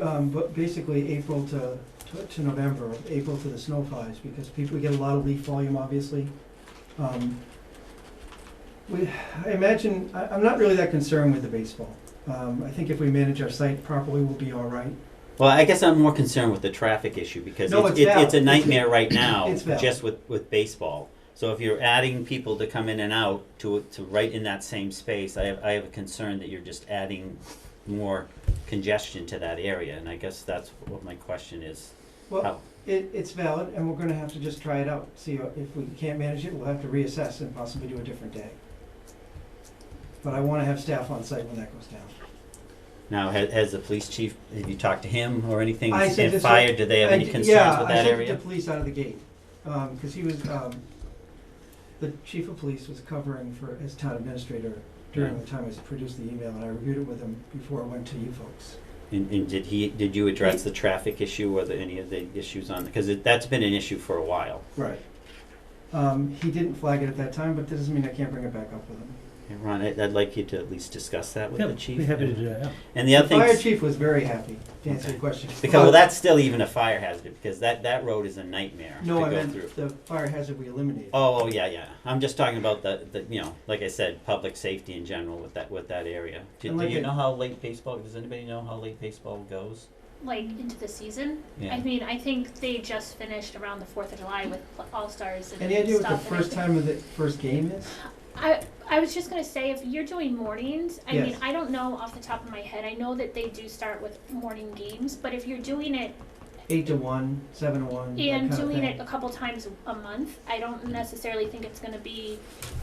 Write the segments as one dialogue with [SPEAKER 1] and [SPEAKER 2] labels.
[SPEAKER 1] Um, but basically April to, to, to November, April to the snow flies, because people get a lot of leaf volume, obviously. Um, we, I imagine, I, I'm not really that concerned with the baseball. Um, I think if we manage our site properly, we'll be all right.
[SPEAKER 2] Well, I guess I'm more concerned with the traffic issue because
[SPEAKER 1] No,
[SPEAKER 2] it's,
[SPEAKER 1] it's
[SPEAKER 2] it's, it's, a
[SPEAKER 1] valid.
[SPEAKER 2] nightmare right now,
[SPEAKER 1] It's valid.
[SPEAKER 2] just with, with baseball. So if you're adding people to come in and out to, to right in that same space, I have, I have a concern that you're just adding more congestion to that area. And I guess that's what my question is.
[SPEAKER 1] Well,
[SPEAKER 2] How-
[SPEAKER 1] it, it's valid, and we're gonna have to just try it out, see if we can't manage it, we'll have to reassess and possibly do a different day. But I wanna have staff on site when that goes down.
[SPEAKER 2] Now, has, has the police chief, have you talked to him or anything?
[SPEAKER 1] I said
[SPEAKER 2] And
[SPEAKER 1] this-
[SPEAKER 2] fire, do they have
[SPEAKER 1] I
[SPEAKER 2] any
[SPEAKER 1] d-
[SPEAKER 2] concerns with
[SPEAKER 1] Yeah, I
[SPEAKER 2] that
[SPEAKER 1] sent the
[SPEAKER 2] area?
[SPEAKER 1] police out of the gate, Um 'cause cause he was, um, the chief of police was covering for, as town administrator during
[SPEAKER 2] Yeah.
[SPEAKER 1] the time I produced the email, and I reviewed it with him before it went to you folks.
[SPEAKER 2] And, and did he, did you address the traffic issue or the, any of the issues on, because it, that's been an issue for a while.
[SPEAKER 1] Right. Um, he didn't flag it at that time, but that doesn't mean I can't bring it back up with him.
[SPEAKER 2] Hey, Ron, I- I'd like you to at least discuss that with
[SPEAKER 3] Yeah,
[SPEAKER 2] the chief.
[SPEAKER 3] Be happy to do that, yeah.
[SPEAKER 2] And the other thing,
[SPEAKER 1] Fire chief was very happy, to answer your
[SPEAKER 2] Okay.
[SPEAKER 1] question.
[SPEAKER 2] because well, that's still even a fire hazard because that, that road is a nightmare
[SPEAKER 1] No,
[SPEAKER 2] to
[SPEAKER 1] I
[SPEAKER 2] go
[SPEAKER 1] meant
[SPEAKER 2] through.
[SPEAKER 1] the fire hazard we eliminated.
[SPEAKER 2] Oh, oh yeah, yeah. I'm just talking about the, the you know, like I said, public safety in general with that with that area. Do,
[SPEAKER 1] And like
[SPEAKER 2] do you
[SPEAKER 1] it-
[SPEAKER 2] know how late baseball? Does anybody know how late baseball goes?
[SPEAKER 4] like into the season.
[SPEAKER 2] Yeah.
[SPEAKER 4] I mean, I think they just finished around the Fourth of July with All Stars and
[SPEAKER 1] Any idea what
[SPEAKER 4] stuff.
[SPEAKER 1] the
[SPEAKER 4] and I
[SPEAKER 1] first
[SPEAKER 4] think-
[SPEAKER 1] time of the first game is?
[SPEAKER 4] I I was just gonna say if you're doing mornings, I mean,
[SPEAKER 1] Yes.
[SPEAKER 4] I don't know off the top of my head. I know that they do start with morning games, but if you're doing it
[SPEAKER 1] Eight to one, seven to one, Mm, that
[SPEAKER 4] and
[SPEAKER 1] kind of
[SPEAKER 4] doing
[SPEAKER 1] thing.
[SPEAKER 4] it a couple times a month, I don't necessarily think it's gonna be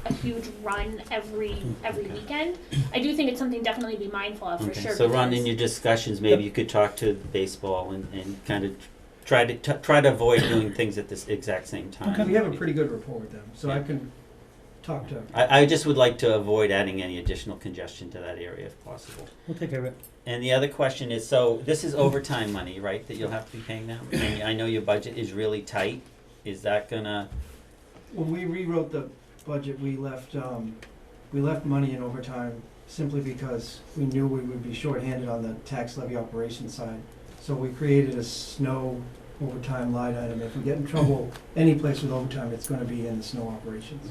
[SPEAKER 4] a huge run every every
[SPEAKER 2] Okay.
[SPEAKER 4] weekend. I do think it's something definitely to be mindful of for
[SPEAKER 2] okay.
[SPEAKER 4] sure.
[SPEAKER 2] so, Ron,
[SPEAKER 4] because-
[SPEAKER 2] in your discussions, maybe you could talk to baseball and, and kind of try to t- try to avoid doing things at this exact same time.
[SPEAKER 1] We have a pretty good rapport with them, so I
[SPEAKER 2] Yeah.
[SPEAKER 1] can talk to,
[SPEAKER 2] I, I just would like to avoid adding any additional congestion to that area if possible.
[SPEAKER 3] We'll take care of it.
[SPEAKER 2] And the other question is, so this is overtime money, right, that you'll have to be paying them? And I know your budget is really tight. Is that gonna,
[SPEAKER 1] when we rewrote the budget, we left, um, we left money in overtime simply because we knew we would be shorthanded on the tax levy operation side. So we created a snow overtime line item. If we get in trouble any place with overtime, it's gonna be in the snow operations.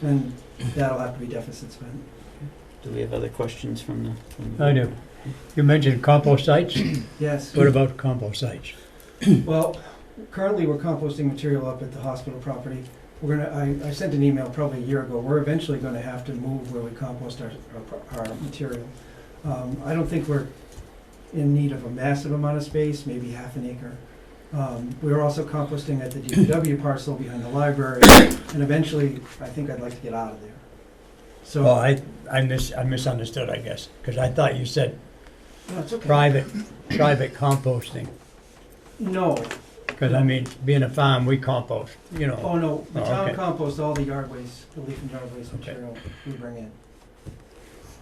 [SPEAKER 1] And that'll have to be deficit spent.
[SPEAKER 2] do we have other questions from the? from the-
[SPEAKER 3] I do. You mentioned compost sites.
[SPEAKER 1] Yes,
[SPEAKER 3] What about compost sites?
[SPEAKER 1] well, currently we're composting material up at the hospital property. We're gonna, I, I sent an email probably a year ago, we're eventually gonna have to move where we compost our, our, pro- our material. Um, I don't think we're in need of a massive amount of space, maybe half an acre. Um, we're also composting at the DPW parcel behind the library, and eventually, I think I'd like to get out of there. So,
[SPEAKER 3] Well,
[SPEAKER 1] no,
[SPEAKER 3] I, I mis, I misunderstood, I guess, because I thought you said
[SPEAKER 1] it's okay.
[SPEAKER 3] private, private composting.
[SPEAKER 1] No,
[SPEAKER 3] Because I mean, being a farm, we compost, you know.
[SPEAKER 1] oh no, the
[SPEAKER 3] Oh,
[SPEAKER 1] town
[SPEAKER 3] okay.
[SPEAKER 1] composts all the yard waste, the leaf and yard waste
[SPEAKER 3] Okay.
[SPEAKER 1] material we bring in.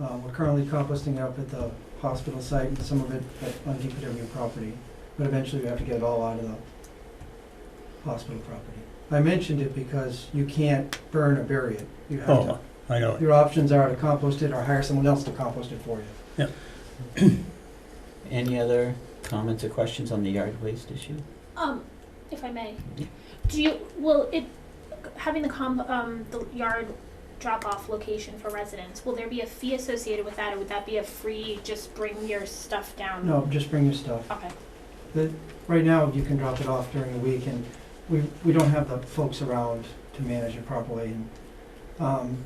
[SPEAKER 1] Uh, we're currently composting up at the hospital site, and some of it at- on DPW property, but eventually we have to get it all out of the hospital property. I mentioned it because you can't burn or bury it. You have to,
[SPEAKER 3] Oh, I know.
[SPEAKER 1] your options are to compost it or hire someone else to compost it for you.
[SPEAKER 2] Any other comments or questions on the yard waste issue?
[SPEAKER 4] Um, if I may,
[SPEAKER 2] Yeah.
[SPEAKER 4] do you, will it, having the comp, um, the yard drop-off location for residents, will there be a fee associated with that, or would that be a free, just bring your stuff down?
[SPEAKER 1] No, just bring your stuff.
[SPEAKER 4] Okay,
[SPEAKER 1] Right now, you can drop it off during the week, and we, we don't have the folks around to manage it properly. And um,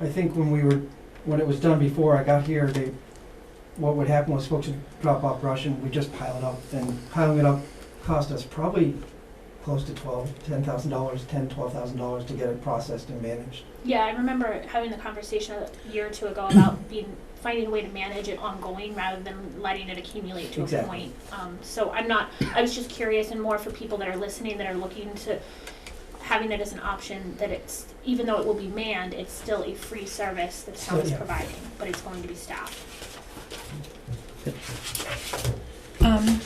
[SPEAKER 1] I think when we were, when it was done before I got here, they, what would happen was folks would drop off brush and we just pile it up. And piling it up cost us probably close to twelve, ten thousand dollars, ten, twelve thousand dollars to get it processed and managed.
[SPEAKER 4] yeah, I remember having the conversation a year or two ago about being, finding a way to manage it ongoing rather than letting it accumulate to a
[SPEAKER 1] Exactly.
[SPEAKER 4] point. Um, so I'm not, I was just curious, and more for people that are listening, that are looking to, having it as an option, that it's, even though it will be manned, it's still a free service that the town is
[SPEAKER 1] Yeah.
[SPEAKER 4] providing, but it's going to be staffed.
[SPEAKER 5] Um,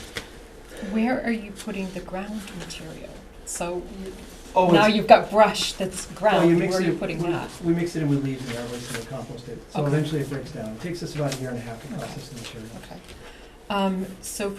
[SPEAKER 5] where are you putting the ground material? So you-
[SPEAKER 1] Oh,
[SPEAKER 5] now
[SPEAKER 1] it's-
[SPEAKER 5] you've got brush that's
[SPEAKER 1] well, you
[SPEAKER 5] ground,
[SPEAKER 1] mix
[SPEAKER 5] where are
[SPEAKER 1] it- Mm.
[SPEAKER 5] you putting
[SPEAKER 1] we-
[SPEAKER 5] that?
[SPEAKER 1] We mix it in with leaves and airways and we compost it. So
[SPEAKER 5] Okay.
[SPEAKER 1] eventually it breaks down. It takes us about a year and a half to
[SPEAKER 5] Okay.
[SPEAKER 1] process the material.
[SPEAKER 5] Okay. Um, so